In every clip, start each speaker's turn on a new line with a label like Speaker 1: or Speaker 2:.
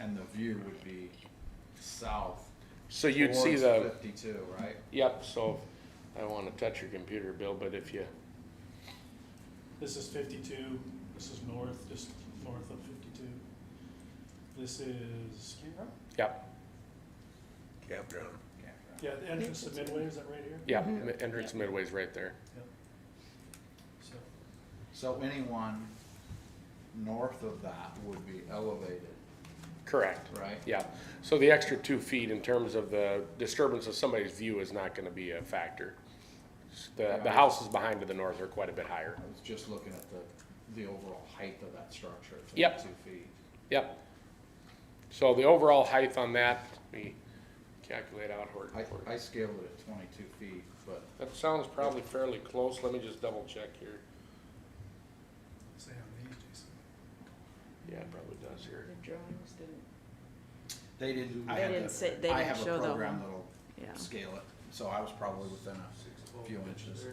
Speaker 1: and the view would be south.
Speaker 2: So you'd see
Speaker 1: towards
Speaker 2: the,
Speaker 1: Fifty-two, right?
Speaker 2: yep, so I don't wanna touch your computer, Bill, but if you,
Speaker 3: This is fifty-two, this is north, just north of fifty-two. This is Cameron?
Speaker 2: yep,
Speaker 4: campground.
Speaker 1: Campground.
Speaker 3: Yeah, the entrance to Midway, is that right here?
Speaker 2: yep, entrance midway's right there.
Speaker 3: So,
Speaker 1: So anyone north of that would be elevated,
Speaker 2: Correct,
Speaker 1: right?
Speaker 2: yeah. So the extra two feet in terms of the disturbance of somebody's view is not gonna be a factor. The, the houses behind to the north are quite a bit higher.
Speaker 1: I was just looking at the, the overall height of that structure, it's
Speaker 2: Yep.
Speaker 1: like two feet.
Speaker 2: Yep. So the overall height on that, let me calculate out where. where-
Speaker 1: I, I scaled it at twenty-two feet, but
Speaker 2: That sounds probably fairly close. Let me just double check here.
Speaker 3: say on these, Jason.
Speaker 2: Yeah, it probably does
Speaker 5: The
Speaker 2: here.
Speaker 5: drawings didn't,
Speaker 1: they didn't, I
Speaker 5: They
Speaker 1: had
Speaker 5: didn't say-
Speaker 1: the,
Speaker 5: they
Speaker 1: I
Speaker 5: didn't
Speaker 1: have
Speaker 5: show
Speaker 1: a
Speaker 5: the
Speaker 1: program
Speaker 5: whole-
Speaker 1: that'll
Speaker 5: yeah.
Speaker 1: scale it, so I was probably within a few inches.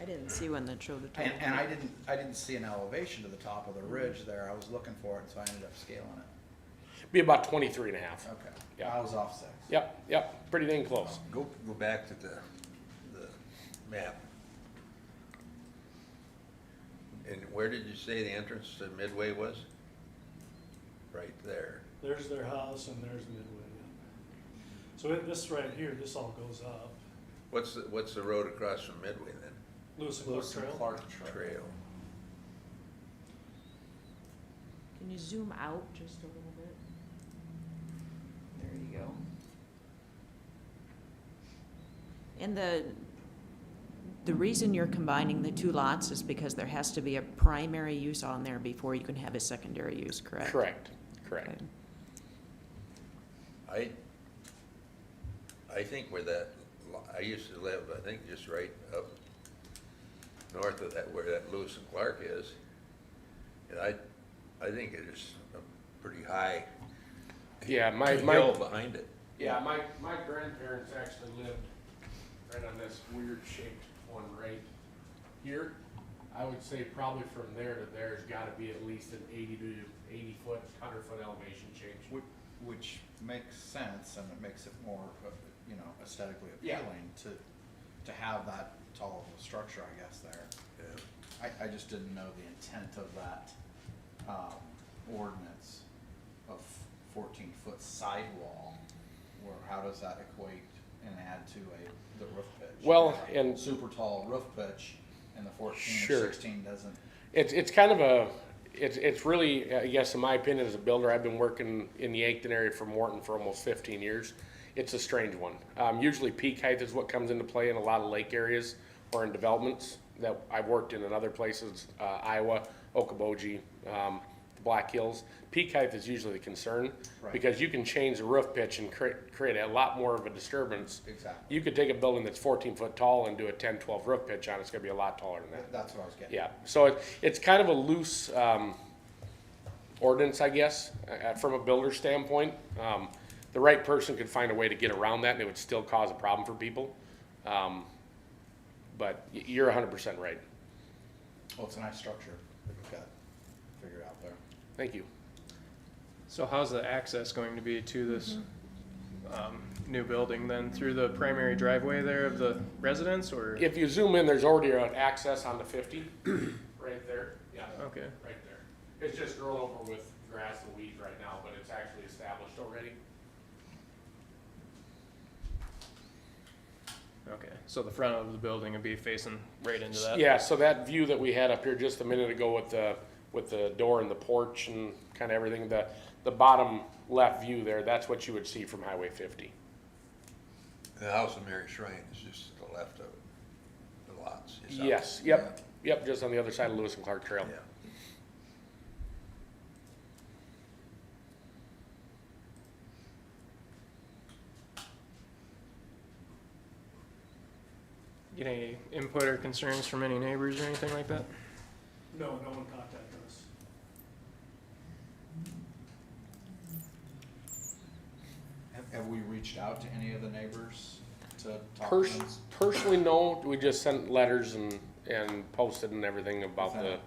Speaker 5: I didn't see one that showed a total.
Speaker 1: And, and I didn't, I didn't see an elevation to the top of the ridge there, I was looking for it, so I ended up scaling it,
Speaker 2: Be about 23 and a half.
Speaker 1: okay,
Speaker 2: Yeah.
Speaker 1: I was off six.
Speaker 2: Yep, yep, pretty dang close.
Speaker 4: Go, go back to the, the map. And where did you say the entrance to Midway was? Right there.
Speaker 3: There's their house and there's Midway. So it- this right here, this all goes up.
Speaker 4: What's, the what's the road across from Midway then?
Speaker 3: Lewis and Clark
Speaker 1: Lewis and
Speaker 3: Trail.
Speaker 1: Clark Trail.
Speaker 4: Trail.
Speaker 5: Can you zoom out just a little bit? There you go. And the, the reason you're combining the two lots is because there has to be a primary use on there before you can have a secondary use, correct?
Speaker 2: Correct, correct.
Speaker 5: Okay.
Speaker 4: I, I think where that, lo- I used to live, I think just right up north of that, where that Lewis and Clark is. And I, I think it is a pretty high
Speaker 2: Yeah, my,
Speaker 4: hill
Speaker 2: my,
Speaker 4: behind it.
Speaker 2: yeah, my, my grandparents actually lived right on this weird shaped one right here. I would say probably from there to there's gotta be at least an 80 to 80 foot, 100 foot elevation change.
Speaker 1: Which, which makes sense and it makes it more, uh, you know, aesthetically
Speaker 2: Yeah.
Speaker 1: appealing to, to have that tall of a structure, I guess, there.
Speaker 4: Yeah.
Speaker 1: I, I just didn't know the intent of that, um, ordinance of fourteen foot sidewall. Where, how does that equate and add to a, the roof pitch?
Speaker 2: Well, and-
Speaker 1: Super tall roof pitch and the fourteen or
Speaker 2: Sure.
Speaker 1: sixteen doesn't,
Speaker 2: It's, it's kind of a, it's, it's really, I guess in my opinion, as a builder, I've been working in the Yankton area for Morton for almost fifteen years. It's a strange one. Um, usually peak height is what comes into play in a lot of lake areas or in developments that I've worked in in other places, uh, Iowa, Okoboji, um, the Black Hills. Peak height is usually the concern
Speaker 1: Right.
Speaker 2: because you can change the roof pitch and create, create a lot more of a disturbance.
Speaker 1: exactly,
Speaker 2: You could take a building that's fourteen foot tall and do a 10, 12 roof pitch on, it, it's gonna be a lot taller than that.
Speaker 1: Th- that's what I was getting.
Speaker 2: Yeah, so it, it's kind of a loose, um, ordinance, I guess, uh, from a builder standpoint. Um, the right person could find a way to get around that and it would still cause a problem for people. Um, but y- you're hundred percent right.
Speaker 1: Well, it's a nice structure that we've got figured out there.
Speaker 2: Thank you.
Speaker 6: So how's the access going to be to this um, new building then? Through the primary driveway there of the residence or?
Speaker 2: If you zoom in, there's already an access on the fifty, right there. Yeah,
Speaker 6: Okay,
Speaker 2: right there. It's just grown over with grass and weeds right now, but it's actually established already.
Speaker 6: okay. So the front of the building would be facing right into that?
Speaker 2: Yeah, so that view that we had up here just a minute ago with the, with the door and the porch and kind of everything, the, the bottom left view there, that's what you would see from Highway fifty.
Speaker 4: The House of Mary Shrine is just to the left of the lots. it's out.
Speaker 2: Yes, yep, yep, just on the other side of Lewis and Clark
Speaker 4: Yeah.
Speaker 2: Trail.
Speaker 6: Get any input or concerns from any neighbors or anything like that?
Speaker 3: No, no one contacted us.
Speaker 1: Have, have we reached out to any of the neighbors to talk to
Speaker 2: Pers-
Speaker 1: them?
Speaker 2: Personally, no, we just sent letters and, and posted and everything about the,
Speaker 1: Without-